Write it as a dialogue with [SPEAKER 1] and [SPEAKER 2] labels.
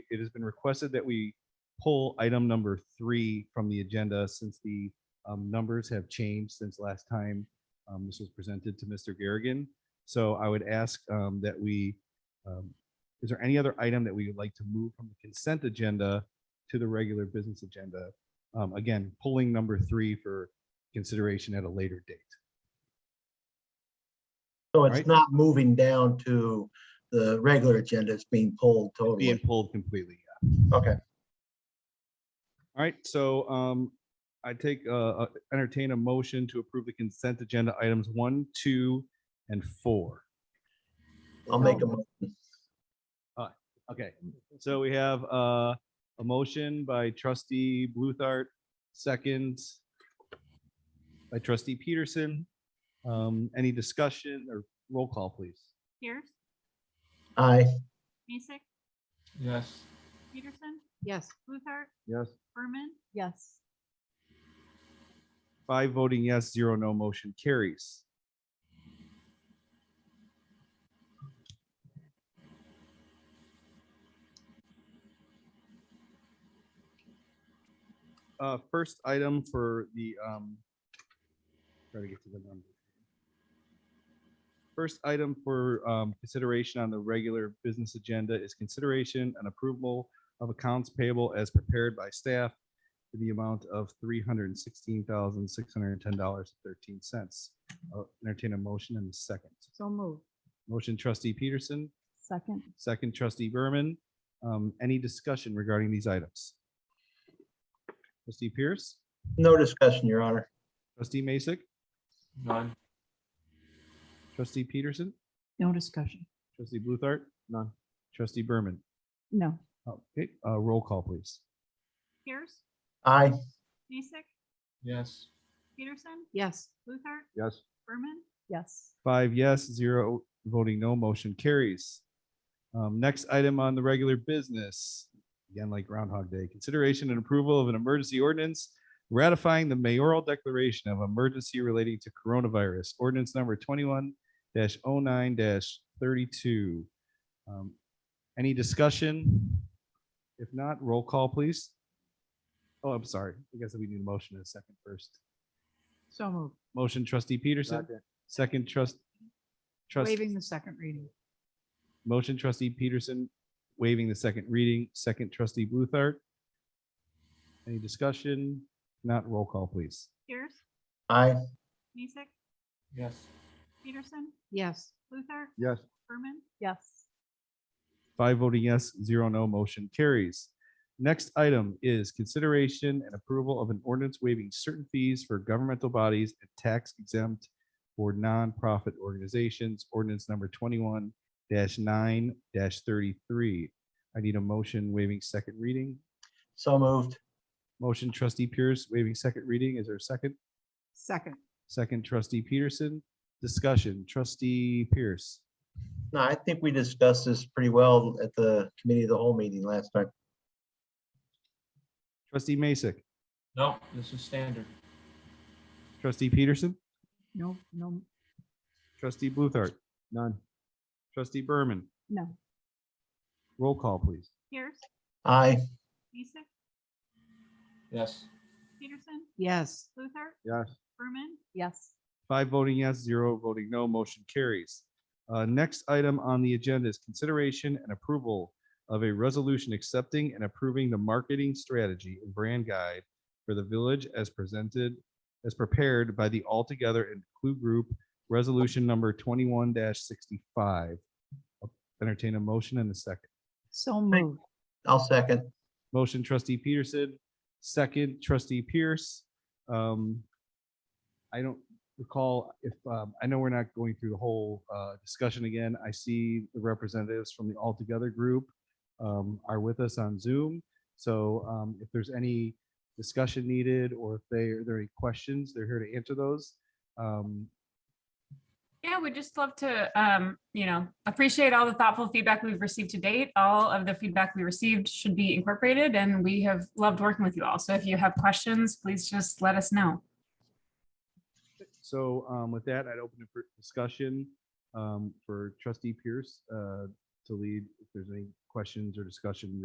[SPEAKER 1] it has been requested that we pull item number three from the agenda since the um, numbers have changed since last time um, this was presented to Mr. Garrigan. So I would ask um, that we, um, is there any other item that we would like to move from the consent agenda to the regular business agenda? Um, Again, pulling number three for consideration at a later date.
[SPEAKER 2] So
[SPEAKER 1] Right.
[SPEAKER 2] it's not moving down to the regular agenda, it's being pulled
[SPEAKER 1] Being
[SPEAKER 2] totally.
[SPEAKER 1] pulled completely.
[SPEAKER 2] Okay,
[SPEAKER 1] All right, so um, I take, uh, uh, entertain a motion to approve the consent agenda items one, two, and four.
[SPEAKER 2] I'll make a, mo-
[SPEAKER 1] Okay, so we have uh, a motion by trustee Bluthart, second by trustee Peterson. Um, Any discussion or roll call, please?
[SPEAKER 3] Pierce,
[SPEAKER 2] aye,
[SPEAKER 3] Mason,
[SPEAKER 4] Yes.
[SPEAKER 3] Peterson,
[SPEAKER 5] Yes.
[SPEAKER 3] Luthart,
[SPEAKER 1] Yes.
[SPEAKER 3] Berman,
[SPEAKER 5] Yes.
[SPEAKER 1] Five voting yes, zero no, motion carries. Uh, first item for the, um, try to get to the number. First item for, um, consideration on the regular business agenda is consideration and approval of accounts payable as prepared by staff in the amount of three hundred and sixteen thousand, six hundred and ten dollars, thirteen cents. Entertain a motion in a second.
[SPEAKER 5] So moved.
[SPEAKER 1] Motion trustee Peterson,
[SPEAKER 5] Second.
[SPEAKER 1] second trustee Berman. Um, Any discussion regarding these items? Trustee Pierce,
[SPEAKER 2] no discussion, your honor.
[SPEAKER 1] trustee Masek,
[SPEAKER 4] None.
[SPEAKER 1] trustee Peterson,
[SPEAKER 5] No discussion.
[SPEAKER 1] trustee Bluthart? None. Trustee Berman?
[SPEAKER 5] No.
[SPEAKER 1] Okay, uh, roll call, please.
[SPEAKER 3] Pierce,
[SPEAKER 2] Aye,
[SPEAKER 3] Mason,
[SPEAKER 4] Yes.
[SPEAKER 3] Peterson,
[SPEAKER 5] Yes.
[SPEAKER 3] Luthart,
[SPEAKER 1] Yes.
[SPEAKER 3] Berman,
[SPEAKER 5] Yes.
[SPEAKER 1] Five yes, zero voting no, motion carries. Um, Next item on the regular business, again like Groundhog Day, consideration and approval of an emergency ordinance ratifying the mayoral declaration of emergency relating to coronavirus, ordinance number twenty-one 9 thirty-two. Um, Any discussion? If not, roll call, please. Oh, I'm sorry. I guess we need a motion in a second first.
[SPEAKER 5] So moved.
[SPEAKER 1] Motion trustee Peterson, second trust. Trust,
[SPEAKER 5] Waiving the second reading.
[SPEAKER 1] motion trustee Peterson waiving the second reading, second trustee Bluthart. Any discussion? Not roll call, please.
[SPEAKER 3] Pierce,
[SPEAKER 2] aye,
[SPEAKER 3] Mason,
[SPEAKER 4] Yes.
[SPEAKER 3] Peterson,
[SPEAKER 5] Yes.
[SPEAKER 3] Luthart,
[SPEAKER 1] Yes.
[SPEAKER 3] Berman,
[SPEAKER 5] Yes.
[SPEAKER 1] Five voting yes, zero no, motion carries. Next item is consideration and approval of an ordinance waiving certain fees for governmental bodies and tax exempt for nonprofit organizations, ordinance number twenty-one nine thirty-three. I need a motion waiving second reading.
[SPEAKER 2] so moved,
[SPEAKER 1] Motion trustee Pierce waiving second reading. Is there a second?
[SPEAKER 5] Second.
[SPEAKER 1] Second trustee Peterson. Discussion, trustee Pierce.
[SPEAKER 2] no, I think we discussed this pretty well at the committee of the whole meeting last night.
[SPEAKER 1] Trustee Masek,
[SPEAKER 4] No, this is standard.
[SPEAKER 1] trustee Peterson,
[SPEAKER 5] No, no,
[SPEAKER 1] trustee Bluthart. None. Trustee Berman.
[SPEAKER 5] no.
[SPEAKER 1] Roll call, please.
[SPEAKER 3] Pierce,
[SPEAKER 2] Aye,
[SPEAKER 3] Mason,
[SPEAKER 4] Yes.
[SPEAKER 3] Peterson,
[SPEAKER 5] Yes.
[SPEAKER 3] Luthart,
[SPEAKER 1] Yes.
[SPEAKER 3] Berman,
[SPEAKER 5] Yes.
[SPEAKER 1] Five voting yes, zero voting no, motion carries. Uh, Next item on the agenda is consideration and approval of a resolution accepting and approving the marketing strategy and brand guide for the village as presented, as prepared by the Altogether and Clue Group, Resolution Number 21-65. Entertain a motion and a second.
[SPEAKER 5] So moved.
[SPEAKER 2] I'll second.
[SPEAKER 1] Motion trustee Peterson, second trustee Pierce. Um, I don't recall if, um, I know we're not going through the whole uh, discussion again. I see the representatives from the All Together group um, are with us on Zoom. So um, if there's any discussion needed or if they, are there any questions, they're here to answer those. Um,
[SPEAKER 6] Yeah, we'd just love to, um, you know, appreciate all the thoughtful feedback we've received to date. All of the feedback we received should be incorporated and we have loved working with you all. So if you have questions, please just let us know.
[SPEAKER 1] So um, with that, I'd open it for discussion um, for trustee Pierce uh, to lead if there's any questions or discussion